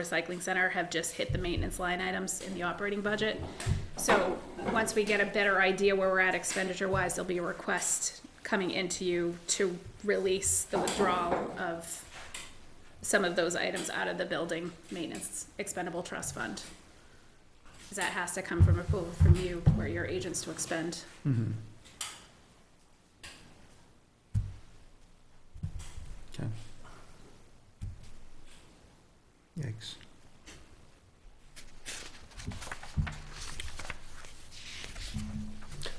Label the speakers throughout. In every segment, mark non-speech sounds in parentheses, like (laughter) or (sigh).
Speaker 1: recycling center have just hit the maintenance line items in the operating budget. So, once we get a better idea where we're at expenditure wise, there'll be a request coming into you to release the withdrawal of some of those items out of the building maintenance expendable trust fund. 'Cause That has to come from approval from you, where your agents to expend.
Speaker 2: Okay. Yikes.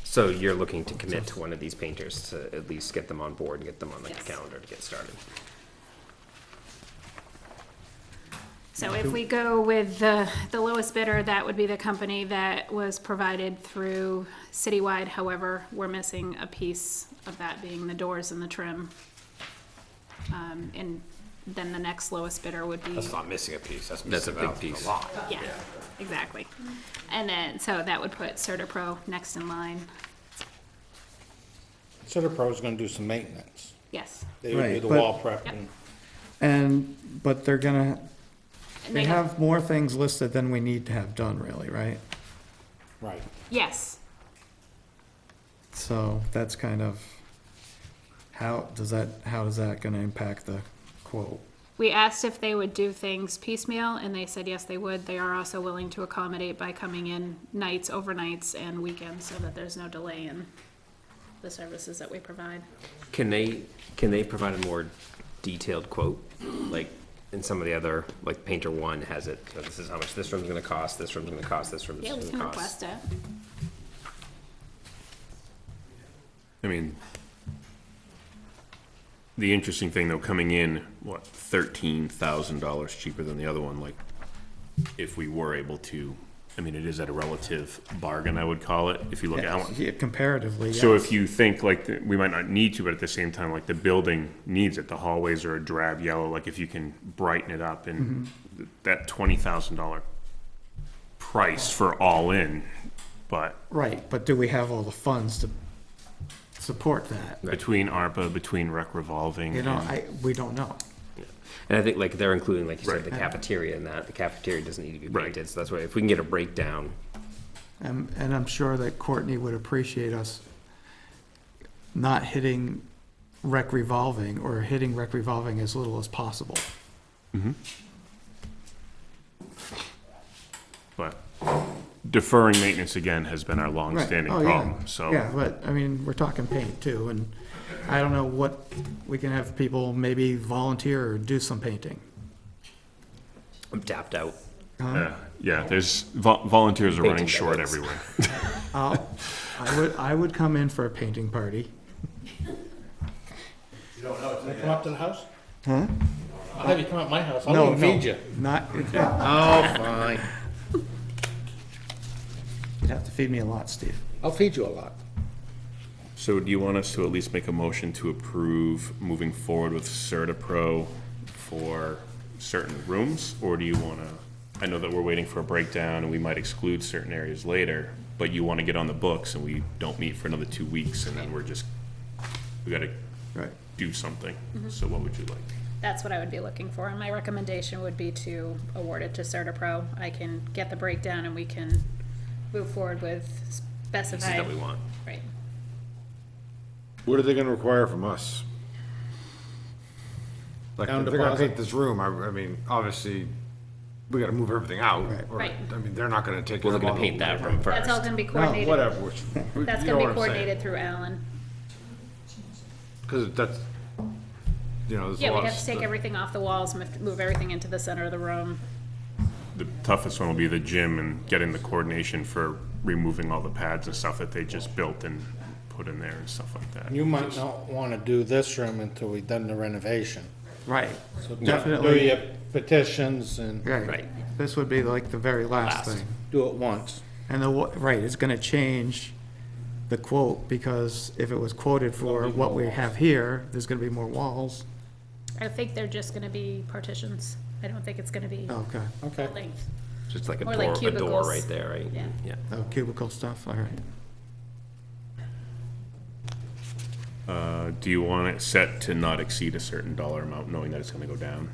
Speaker 3: So you're looking to commit to one of these painters to at least get them on board and get them on the
Speaker 1: Yes.
Speaker 3: calendar to get started?
Speaker 1: So if we go with the, the lowest bidder, that would be the company that was provided through Citywide. However, we're missing a piece of that being the doors and the trim. Um, and then the next lowest bidder would be,
Speaker 4: That's not missing a piece, that's
Speaker 3: That's a
Speaker 4: missing
Speaker 3: big
Speaker 4: out a
Speaker 3: piece.
Speaker 4: lot.
Speaker 1: yeah, exactly. And then, so that would put Certapro next in line.
Speaker 5: Citipro is gonna do some maintenance.
Speaker 1: Yes.
Speaker 5: They would do
Speaker 2: Right,
Speaker 5: the
Speaker 2: but-
Speaker 5: wall prep and,
Speaker 2: And, but they're gonna,
Speaker 1: And
Speaker 2: they have more things listed than we need to have done really, right?
Speaker 5: right.
Speaker 1: Yes.
Speaker 2: So that's kind of, how does that, how is that gonna impact the quote?
Speaker 1: We asked if they would do things piecemeal, and they said yes, they would. They are also willing to accommodate by coming in nights, overnights, and weekends, so that there's no delay in the services that we provide.
Speaker 3: Can they, can they provide a more detailed quote? Like, in some of the other, like Painter One has it, so this is how much this room's gonna cost, this room's gonna cost, this room's
Speaker 1: Yeah, we can
Speaker 3: gonna cost.
Speaker 1: request it.
Speaker 6: I mean, the interesting thing though, coming in, what, thirteen thousand dollars cheaper than the other one, like, if we were able to, I mean, it is at a relative bargain, I would call it, if you look at how,
Speaker 2: Yeah, Comparatively,
Speaker 6: so
Speaker 2: yeah.
Speaker 6: if you think like, that we might not need to, but at the same time, like, the building needs it, the hallways are a drab yellow, like, if you can brighten it up and th- that twenty thousand dollar price for all in, but
Speaker 2: Right, but do we have all the funds to support that?
Speaker 6: between ARPA, between rec revolving.
Speaker 2: You know,
Speaker 6: and-
Speaker 2: I, we don't know.
Speaker 3: And I think like they're including, like you said,
Speaker 6: Right.
Speaker 3: the cafeteria in that, the cafeteria doesn't need to be
Speaker 6: Right.
Speaker 3: painted, so that's why, if we can get a breakdown,
Speaker 2: Um, and I'm sure that Courtney would appreciate us not hitting rec revolving or hitting rec revolving as little as possible.
Speaker 6: But deferring maintenance again has been our
Speaker 2: Right.
Speaker 6: longstanding
Speaker 2: Oh, yeah.
Speaker 6: problem, so.
Speaker 2: Yeah, but, I mean, we're talking paint too, and I don't know what, we can have people maybe volunteer or do some painting.
Speaker 3: I'm tapped out.
Speaker 6: Yeah, uh, Yeah, there's, vol- volunteers are running
Speaker 3: Painting
Speaker 6: short
Speaker 3: deadlines.
Speaker 6: everywhere.
Speaker 2: I'll,
Speaker 5: (laughs)
Speaker 2: I would, I would come in for a painting party.
Speaker 5: They come up to the house?
Speaker 2: Huh?
Speaker 5: I'll have you come up my house,
Speaker 2: No,
Speaker 5: I'll
Speaker 2: no,
Speaker 5: even feed you. (laughs)
Speaker 2: Not, you'd
Speaker 5: Oh, fine.
Speaker 2: have to feed me a lot, Steve.
Speaker 5: I'll feed you a lot.
Speaker 6: So do you want us to at least make a motion to approve moving forward with CertaPro for certain rooms? Or do you want to, I know that we're waiting for a breakdown and we might exclude certain areas later, but you want to get on the books and we don't meet for another two weeks and then we're just, we got to
Speaker 2: Right.
Speaker 6: do something. So what would you like?
Speaker 1: That's what I would be looking for, and my recommendation would be to award it to Certapro. I can get the breakdown and we can move forward with
Speaker 3: This is
Speaker 1: specified.
Speaker 3: what we want.
Speaker 1: Right.
Speaker 7: What are they gonna require from us? Like,
Speaker 5: Down
Speaker 7: if they're gonna
Speaker 5: deposit.
Speaker 7: paint this room, I, I mean, obviously, we gotta move everything out. or-
Speaker 1: Right.
Speaker 7: I mean, they're not gonna take.
Speaker 3: We're
Speaker 7: care of
Speaker 3: looking to
Speaker 7: all
Speaker 3: paint
Speaker 7: the-
Speaker 3: that room first.
Speaker 1: That's all gonna be coordinated.
Speaker 7: Whatever, which, you
Speaker 1: That's gonna
Speaker 7: know what
Speaker 1: be
Speaker 7: I'm saying.
Speaker 1: coordinated through Alan.
Speaker 7: Cause that's, you know, there's a
Speaker 1: Yeah,
Speaker 7: lot
Speaker 1: we'd
Speaker 7: of.
Speaker 1: have to take
Speaker 7: stuff.
Speaker 1: everything off the walls, move move everything into the center of the room.
Speaker 6: The toughest one will be the gym and getting the coordination for removing all the pads and stuff that they just built and put in there and stuff like that.
Speaker 5: You might not wanna do this room until we've done the renovation.
Speaker 2: Right,
Speaker 5: So Do
Speaker 2: Definitely.
Speaker 5: your petitions and
Speaker 2: right. This would be like the very last thing.
Speaker 5: do it once.
Speaker 2: And the, wa- right, it's gonna change the quote, because if it was quoted for what we have here, there's gonna be more walls.
Speaker 1: I think they're just gonna be partitions. I don't think it's gonna be
Speaker 2: Oh, Okay,
Speaker 5: Okay.
Speaker 1: length.
Speaker 3: Just like a
Speaker 1: Or like
Speaker 3: door, a door
Speaker 1: cubicles.
Speaker 3: right there, right?
Speaker 1: Yeah.
Speaker 3: Yeah.
Speaker 2: oh, cubicle stuff, all right.
Speaker 6: Uh, do you want it set to not exceed a certain dollar amount, knowing that it's gonna go down?